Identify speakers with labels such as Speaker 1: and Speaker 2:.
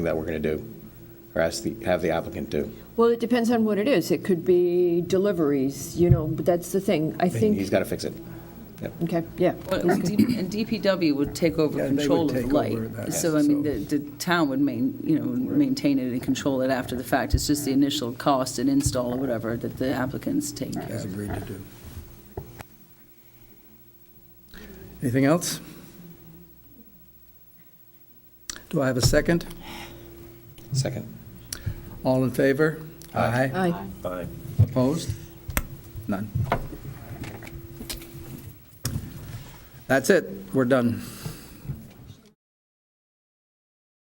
Speaker 1: that we're going to do, or ask the, have the applicant do.
Speaker 2: Well, it depends on what it is. It could be deliveries, you know, but that's the thing. I
Speaker 1: He's
Speaker 2: think,
Speaker 1: got to fix it.
Speaker 2: okay, yeah.
Speaker 3: Well, And D- and DPW would take over
Speaker 4: Yeah, they would
Speaker 3: control of the
Speaker 4: take over
Speaker 3: light.
Speaker 4: that,
Speaker 3: So, I mean, the, the town would main, you know, maintain it and control it after the fact. It's just the initial cost and install or whatever that the applicants take.
Speaker 4: has agreed to do. Anything else? Do I have a second?
Speaker 1: Second.
Speaker 4: All in favor? Aye.
Speaker 2: Aye.
Speaker 4: Opposed? None. That's it. We're done.